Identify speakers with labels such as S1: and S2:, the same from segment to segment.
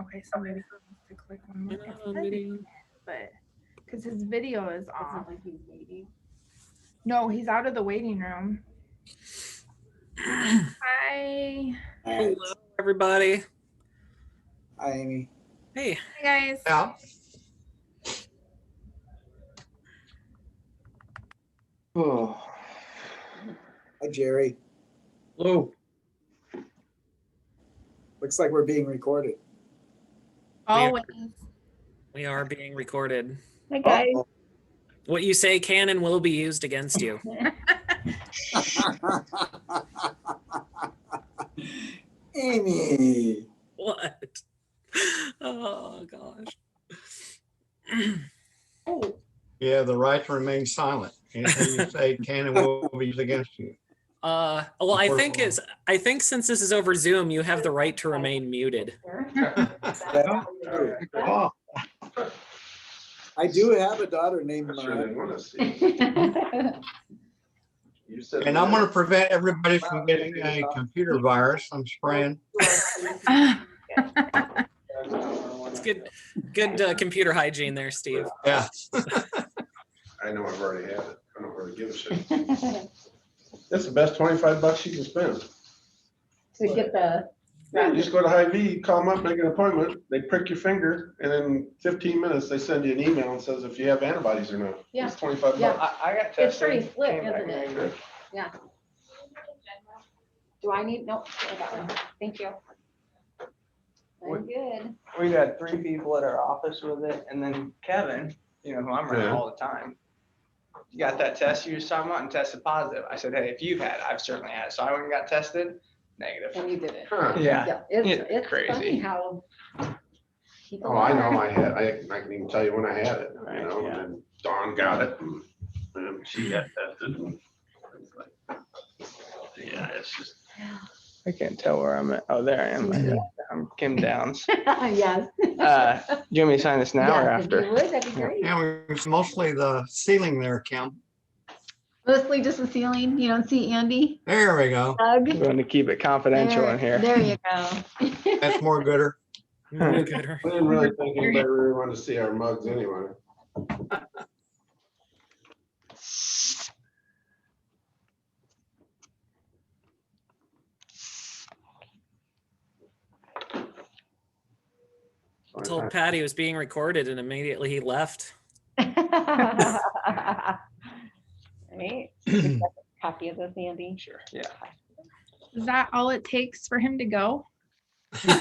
S1: Okay, so maybe he needs to click one more.
S2: Get
S1: It's
S2: out of
S1: heavy,
S2: video.
S1: But, cause his video is
S3: It's
S1: off.
S3: not like he's waiting.
S1: No, he's out of the waiting room. Hi,
S4: Alright.
S2: Hello, everybody.
S4: Hi, Amy.
S2: Hey,
S1: hi guys.
S5: Yeah.
S4: Oh. Hi, Jerry.
S5: Hello.
S4: Looks like we're being recorded.
S1: Always.
S2: we are being recorded.
S6: Hi guys.
S4: Uh-oh.
S2: What you say can and will be used against you.
S4: Amy.
S2: What? Oh, gosh.
S3: Oh,
S5: Yeah, the right to remain silent. Anything you say can and will be used against you.
S2: Uh, well, I
S5: Or-
S2: think is, I think since this is over Zoom, you have the right to remain muted.
S3: sure.
S4: That's true.
S5: Oh,
S4: I do have a daughter named
S7: I sure
S4: Mariah.
S7: didn't want to see. You said
S5: And I'm gonna
S7: that.
S5: prevent everybody from getting a computer virus. I'm spraying.
S2: It's good, good uh, computer hygiene there, Steve.
S5: Yeah.
S7: I know I've already had it. I don't really give a shit. That's the best twenty-five bucks you can spend.
S3: To get the.
S7: Yeah, you just go to Hy-Vee, call them up, make an appointment. They prick your finger and in fifteen minutes, they send you an email and says if you have antibodies or not.
S3: Yeah.
S7: It's twenty-five
S3: Yeah.
S7: bucks.
S8: I, I got tested.
S3: It's pretty slick,
S8: came back
S3: isn't it?
S8: negative.
S3: Do I need, nope, I got one. Thank you. I'm good.
S8: We had three people at our office with it, and then Kevin, you know, who I'm around
S7: Yeah.
S8: all the time. You got that test you just talking about and tested positive. I said, hey, if you've had, it, I've certainly had it. So I went and got tested, negative.
S3: And you did it.
S7: Huh.
S8: Yeah.
S3: It's,
S8: It's
S3: it's funny
S8: crazy.
S3: how. people
S7: Oh, I
S3: are.
S7: know I had, I, I can even tell you when I had it, you
S8: Right,
S7: know, and
S8: yeah.
S7: then Dawn got it. and- And she got tested. and it's like, Yeah, it's just.
S8: I can't tell where I'm at. Oh, there I am. I'm Kim Downs.
S3: Yes.
S8: Uh, Do you want me to sign this now or
S3: Yes, if you
S8: after?
S3: would, that'd be great.
S5: And it's mostly the ceiling there, Kim.
S6: Mostly just the ceiling. You don't see Andy.
S5: There we go.
S6: Doug.
S8: I'm going to keep it confidential
S3: Uh,
S6: There-
S8: in here.
S6: There you go.
S5: That's more gooder.
S2: Muted her.
S7: I didn't really think anybody really wanted to see our mugs anyway.
S2: I told Pat he was being recorded and immediately he left.
S3: Right, copy of this, Andy.
S8: Sure. Yeah.
S1: Is that all it takes for him to go?
S5: There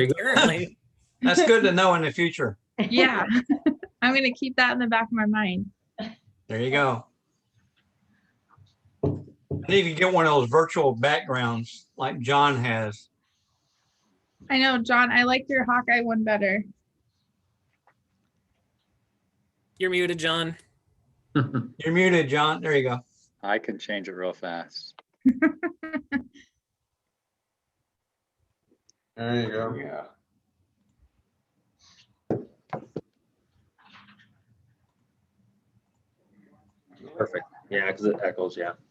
S5: you
S2: Apparently,
S5: That's good to know in the future.
S1: Yeah. I'm gonna keep that in the back of my mind.
S5: There you go. I need to get one of those virtual backgrounds like John has.
S1: I know, John, I like your Hawkeye one better.
S2: you're muted, John.
S5: You're muted, John. There you go.
S9: I can change it real fast.
S7: There you go.
S8: Yeah.
S9: Perfect. Yeah, because it echoes, yeah.